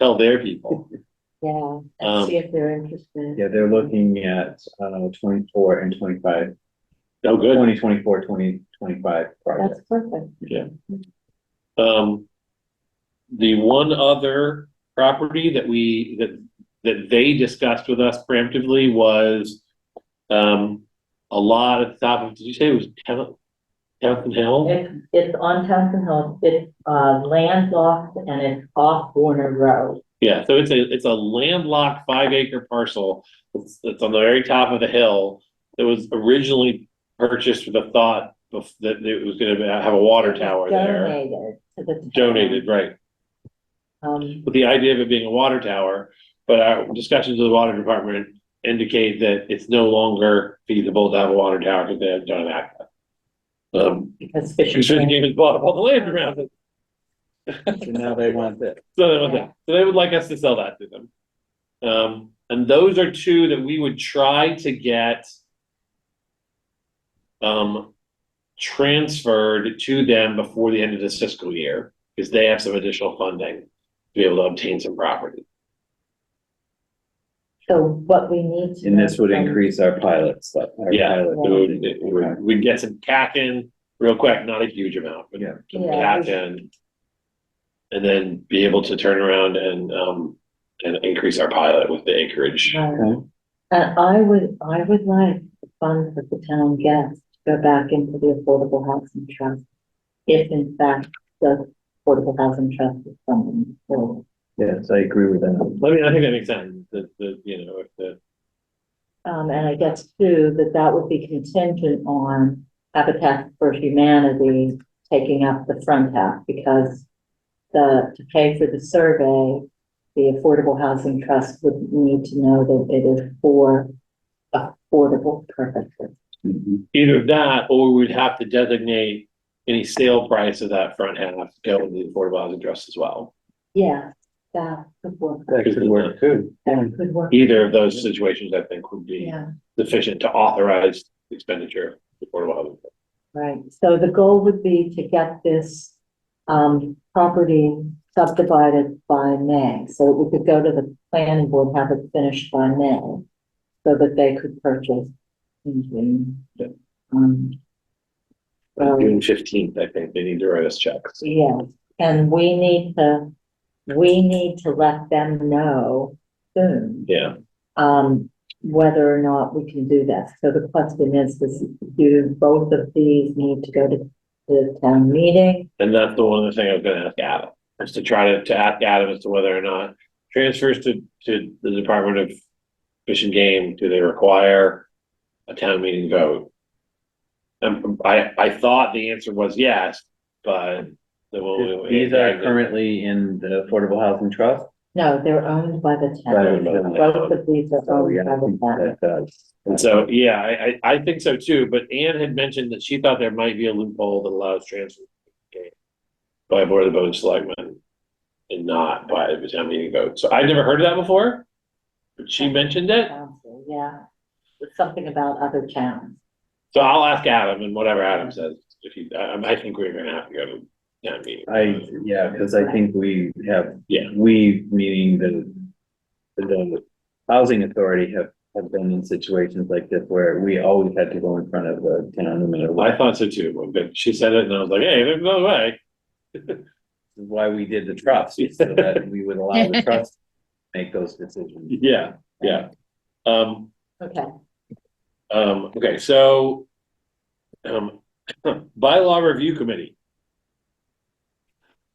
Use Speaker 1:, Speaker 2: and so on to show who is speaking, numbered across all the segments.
Speaker 1: tell their people.
Speaker 2: Yeah,
Speaker 1: Um,
Speaker 2: and see if they're interested.
Speaker 3: Yeah, they're looking at, uh, twenty-four and 25
Speaker 1: Oh, good.
Speaker 3: 2024, 2025
Speaker 2: That's
Speaker 3: projects.
Speaker 2: perfect.
Speaker 1: Um, the one other property that we, that, that they discussed with us preemptively was, um, a lot at the top of, did you say it was Town, Town Hill?
Speaker 2: It's, it's on Townsend Hill, it's, uh, lands off and it's off Warner Road.
Speaker 1: Yeah, so it's a, it's a landlocked five acre parcel. It's, it's on the very top of the hill. That was originally purchased with the thought of, that it was gonna have a water tower there.
Speaker 2: Donated to the. town.
Speaker 1: Donated, right.
Speaker 2: Um,
Speaker 1: with the idea of it being a water tower, but our discussions with the water department indicate that it's no longer feasible to have a water tower because they have done that. Um,
Speaker 2: because
Speaker 1: she
Speaker 2: Fisher.
Speaker 1: shouldn't even bought up all the land around it,
Speaker 3: So now they want this.
Speaker 1: so they want that, so they would like us to sell that to them. Um, and those are two that we would try to get um, transferred to them before the end of this fiscal year, because they have some additional funding to be able to obtain some property.
Speaker 2: So what we need to.
Speaker 3: And this would
Speaker 2: know from-
Speaker 3: increase our pilot stuff. our
Speaker 1: Yeah,
Speaker 3: pilot
Speaker 1: So we-
Speaker 3: funding.
Speaker 1: we- we- We'd get some cack in real quick, not a huge amount, but
Speaker 3: Yeah.
Speaker 1: some
Speaker 2: Yeah.
Speaker 1: cack in. And then be able to turn around and, um, and increase our pilot with the acreage.
Speaker 2: Right.
Speaker 3: Okay.
Speaker 2: And I would, I would like the funds that the town gets to go back into the Affordable Housing Trust. If in fact the Affordable Housing Trust is funding. So
Speaker 3: Yes, I agree with that.
Speaker 1: I mean, I think that makes sense, that, that, you know, if the,
Speaker 2: Um, and I guess too, that that would be contingent on Habitat for Humanity taking up the front half because the, to pay for the survey, the Affordable Housing Trust would need to know that it is for affordable purposes.
Speaker 3: Mhm.
Speaker 1: either that, or we'd have to designate any sale price of that front half to go into the affordable housing trust as well.
Speaker 2: Yeah, that could work.
Speaker 3: That could work too.
Speaker 1: Oh,
Speaker 2: That could work.
Speaker 1: Either of those situations, I think, would be
Speaker 2: Yeah,
Speaker 1: sufficient to authorize expenditure of the affordable housing.
Speaker 2: right. So the goal would be to get this um property subdivided by May. So we could go to the planning board, have it finished by May. So that they could purchase in June.
Speaker 1: Yeah.
Speaker 2: Um, well,
Speaker 1: June fifteenth, I think, they need to write us checks.
Speaker 2: Yes, and we need to, we need to let them know soon.
Speaker 1: Yeah,
Speaker 2: um, whether or not we can do that. So the question is, is do both of these need to go to to the town meeting?
Speaker 1: and that's the one other thing I was gonna ask Adam, is to try to, to ask Adam as to whether or not transfers to, to the Department of Fish and Game, do they require a town meeting vote? Um, I, I thought the answer was yes, but the one.
Speaker 3: These are currently in the Affordable Housing Trust.
Speaker 2: No, they're owned by the
Speaker 3: Right,
Speaker 2: town.
Speaker 3: right.
Speaker 2: Both of these are
Speaker 3: So,
Speaker 2: owned
Speaker 3: yeah,
Speaker 2: by
Speaker 3: I
Speaker 2: the
Speaker 3: think
Speaker 2: town.
Speaker 3: that does.
Speaker 1: And so, yeah, I, I, I think so too, but Anne had mentioned that she thought there might be a loophole that allows transfer by a board of the board of selectmen and not by the town meeting vote. So I've never heard of that before, but she mentioned it.
Speaker 2: Council, Yeah, It's something about other towns.
Speaker 1: So I'll ask Adam and whatever Adam says, if he, I, I think we're gonna have to go to town meeting.
Speaker 3: I, yeah, because I think we have.
Speaker 1: Yeah.
Speaker 3: We, meaning the, the housing authority have, have been in situations like this where we always had to go in front of the town, no matter what.
Speaker 1: I thought so too, but she said it and I was like, hey, there's no way.
Speaker 3: This is Why we did the trust, so that we would allow the trust to make those decisions.
Speaker 1: Yeah, yeah. Um,
Speaker 2: Okay,
Speaker 1: Um, okay, so, um, bylaw review committee.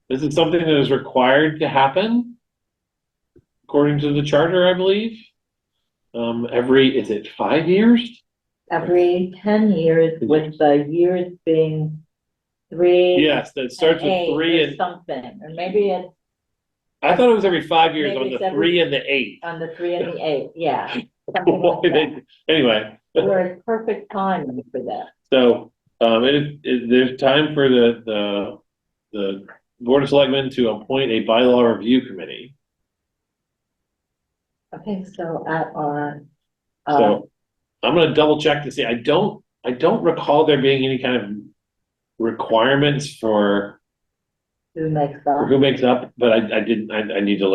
Speaker 1: This is something that is required to happen according to the charter, I believe. Um, every, is it five years?
Speaker 2: every ten years with the years being three.
Speaker 1: Yes, that starts
Speaker 2: and
Speaker 1: with
Speaker 2: eight
Speaker 1: three
Speaker 2: or
Speaker 1: and,
Speaker 2: Something, or maybe it's
Speaker 1: I thought it was every five years
Speaker 2: Maybe
Speaker 1: on the
Speaker 2: it's every-
Speaker 1: three and the eight.
Speaker 2: on the three and the eight, yeah. something
Speaker 1: Why
Speaker 2: like that.
Speaker 1: they- Anyway,
Speaker 2: We're in perfect timing for that.
Speaker 1: so, um, it is, it- there's time for the, the, the board of selectmen to appoint a bylaw review committee.
Speaker 2: Okay, so at our, uh,
Speaker 1: So I'm gonna double check to see, I don't, I don't recall there being any kind of requirements for
Speaker 2: who makes up?
Speaker 1: who makes up, but I, I didn't, I, I need to look